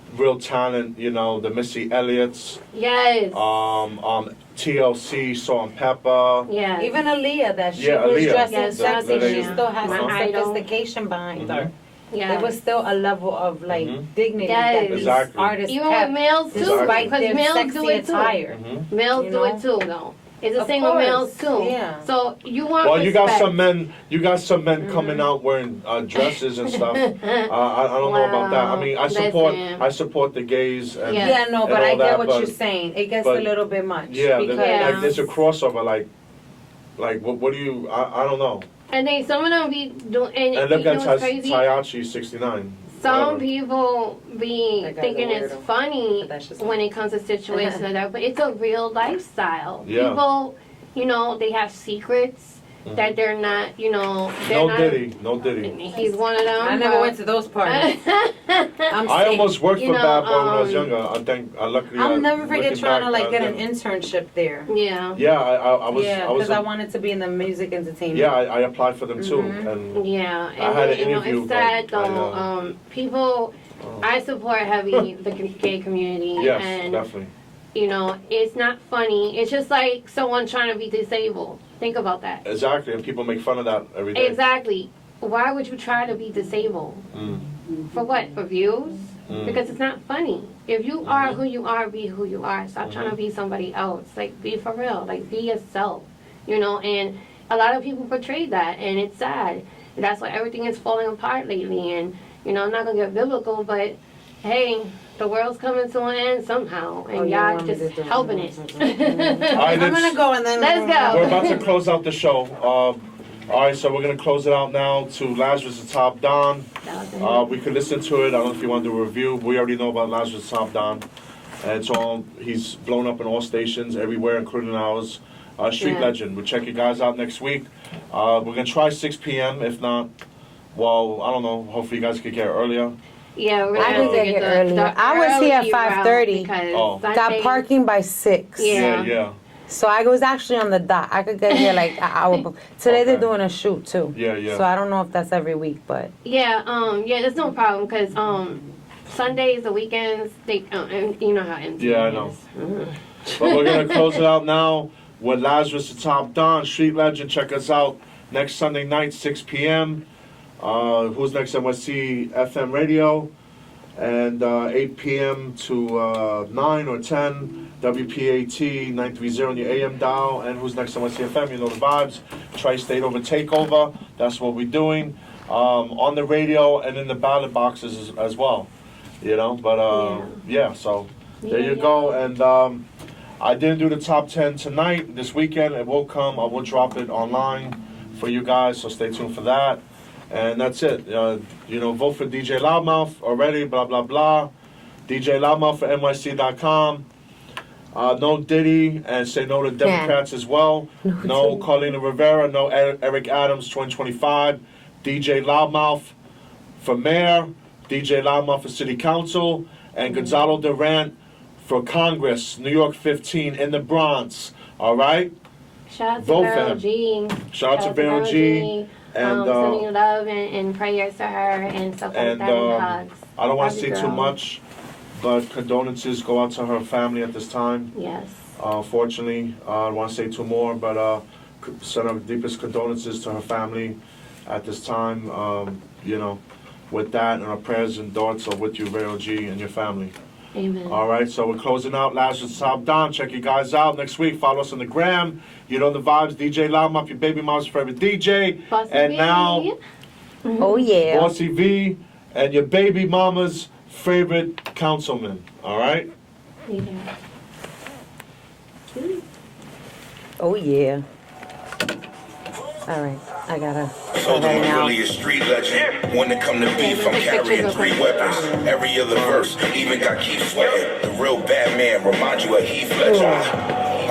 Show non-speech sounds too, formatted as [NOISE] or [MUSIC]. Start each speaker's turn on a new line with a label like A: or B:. A: real talent, you know, the Missy Elliott's,
B: Yes.
A: um, um, TLC, Salt and Pepper.
B: yeah.
C: Even Aaliyah, that she
A: Yeah,
C: was
A: Aaliyah.
C: dressed
B: Yes,
C: in something,
B: that's
C: she
B: Aaliyah.
C: still has some
B: My idol.
C: sophistication behind her.
B: yeah.
C: There was still a level of like
A: Mhm.
C: dignity
B: Yes.
C: that these
A: Exactly.
C: artists
B: Even with
C: kept,
B: males too,
A: Exactly.
C: despite
B: because
C: their
B: males
C: sexy
B: do it too.
C: attire.
A: Mhm.
B: Males
C: You
B: do it too, though. It's the
C: Of
B: same with males
C: course,
B: too.
C: yeah.
B: So you want
A: Well, you
B: respect. Mm-hmm.
A: got some men. You got some men coming out wearing uh, dresses and
B: [LAUGHS]
A: stuff. uh, I, I don't know about that. I mean, I
B: Wow,
A: support.
B: listen.
A: I support the gays. And,
B: Yeah.
C: Yeah, no,
A: And
C: but
A: all
C: I get
A: that,
C: what
A: but-
C: you're saying. It gets
A: but-
C: a little bit much.
A: Yeah, the-
C: because
A: like there's a crossover. Like, like what? What do you? I, I don't know.
B: And then some of them be doing. And,
A: And look
B: you know
A: at
B: what's
A: Ty-
B: crazy?
A: Tayachi, 69.
B: Some
A: whatever.
B: people be
C: That guy's a
B: thinking it's
C: weirdo.
B: funny
C: But that's just
B: when
C: me.
B: it comes to situations like that, but it's a real lifestyle.
A: Yeah. Mm-hmm.
B: People, you know, they have secrets that they're not, you know, they're
A: No
B: not.
A: Diddy, no Diddy.
B: He's one of them.
C: I never
B: but-
C: went to those parties.
B: [LAUGHS]
C: I'm
A: I
C: sick.
A: almost worked
B: you
A: for
B: know,
A: Bad Boy when I was
B: um,
A: younger. I think, I luckily. I-
C: I'll never forget
A: looking
C: trying
A: back, uh,
C: to like
A: I
C: get an
A: think-
C: internship there.
B: yeah.
A: Yeah, I, I, I was,
C: yeah,
A: I was,
C: because I
A: a-
C: wanted to be in the music entertainment.
A: yeah, I, I applied for them too,
C: Mhm.
A: and
B: Yeah, and
A: I had
B: then,
A: an
B: you
A: interview,
B: know, it's sad
A: but I,
B: though.
A: uh,
B: um, people,
A: Oh.
B: I support heavy
A: [LAUGHS]
B: the g- gay community,
A: yes,
B: and
A: definitely.
B: you know, it's not funny. It's just like someone trying to be disabled. Think about that.
A: Exactly, and people make fun of that every day.
B: Exactly. Why would you try to be disabled?
A: Mm,
B: For what? For views?
A: mm.
B: Because it's not funny. If you are
D: Mm-hmm.
B: who you are, be who you are. Stop trying to be somebody else. Like, be for real. Like, be yourself. You know, and a lot of people portray that, and it's sad. And that's why everything is falling apart lately. And, you know, I'm not going to get biblical, but hey, the world's coming to an end somehow, and
C: Oh, yeah,
B: y'all
C: I'm
B: just
C: just doing
B: helping
C: it.
B: it.
D: Mm-hmm.
A: All right,
C: [LAUGHS] I'm gonna
A: let's-
C: go and then
B: Let's go.
A: We're
C: [LAUGHS]
A: about to close out the show. Um, all right, so we're gonna close it out now to Lazarus the Top Don.
D: Um,
A: Uh, we could listen to it. I don't know if you want to do a review. We already know about Lazarus Top Don. And it's all, he's blown up in all stations everywhere, including ours. Uh, Street
B: Yeah.
A: Legend. We'll check you guys out next week. Uh, we're going to try 6 p.m. If not, well, I don't know. Hopefully, you guys could get earlier.
B: yeah, we're
A: I
B: gonna
A: didn't get
B: get
D: here
B: the-
D: earlier.
B: the
D: I was here at
B: early route
D: 5:30.
B: because
A: Oh.
B: Sunday-
D: Got parking by six.
B: Yeah.
A: Yeah, yeah.
D: So I was actually on the dot. I could get here like an
B: [LAUGHS]
D: hour before. Today they're
A: Okay.
D: doing a shoot too.
A: Yeah, yeah.
D: So I don't know if that's every week, but
B: Yeah, um, yeah, that's no problem because um, Sundays, the weekends, they, um, and you know how empty.
A: Yeah, I
B: it
A: know.
B: is.
A: But we're going to close it out now with Lazarus the Top Don, Street Legend. Check us out next Sunday night, 6 p.m. Uh, Who's Next NYC FM Radio. And uh, 8 p.m. to uh, 9 or 10, WPAT 930 on your AM dial. And Who's Next NYC FM, you know the vibes. Tri State Over Takeover, that's what we're doing. Um, on the radio and in the ballot boxes as, as well. You know, but uh, yeah. so there you
B: Yeah.
A: go. And um, I didn't do the top 10 tonight. This weekend it will come. I will drop it online for you guys, so stay tuned for that. And that's it. Uh, you know, vote for DJ Loudmouth already, blah, blah, blah. DJ Loudmouth for NYC.com. Uh, no Diddy and say no to Democrats as well. No Carlina Rivera, no Er- Eric Adams 2025. DJ Loudmouth for mayor, DJ Loudmouth for city council, and Gonzalo Durant for Congress, New York 15 in the Bronx. All right?
B: Shout out to
A: Both of
B: Beryl
A: them.
B: G.
A: Shout out to Baron G. And
B: um,
A: uh,
B: sending love and, and prayers to her and stuff
A: and,
B: like that.
A: um,
B: and hugs.
A: I don't want to
B: Love
A: say
B: you,
A: too
B: girl.
A: much, but condolences go out to her family at this time.
B: Yes.
A: Uh, fortunately, uh, I don't want to say two more, but uh, c- send our deepest condolences to her family at this time. Um, you know, with that, and our prayers and thoughts are with you, Vero G, and your family.
B: Amen.
A: All right, so we're closing out Lazarus Top Don. Check you guys out next week. Follow us on the gram. You know the vibes. DJ Loudmouth, your baby mom's favorite DJ.
B: Bossy
A: and now,
B: baby. Mm-hmm.
D: oh yeah.
A: Bossy V and your baby mama's favorite councilman. All right?
B: Yeah.
D: Oh yeah. All right, I gotta.
E: So the
D: Right now.
E: really a street legend. When it come to beef, I'm
B: take pictures
E: carrying
B: of
E: three
B: him.
E: weapons. Every other verse, even got keep sweating. The real bad man remind you of Heath Ledger.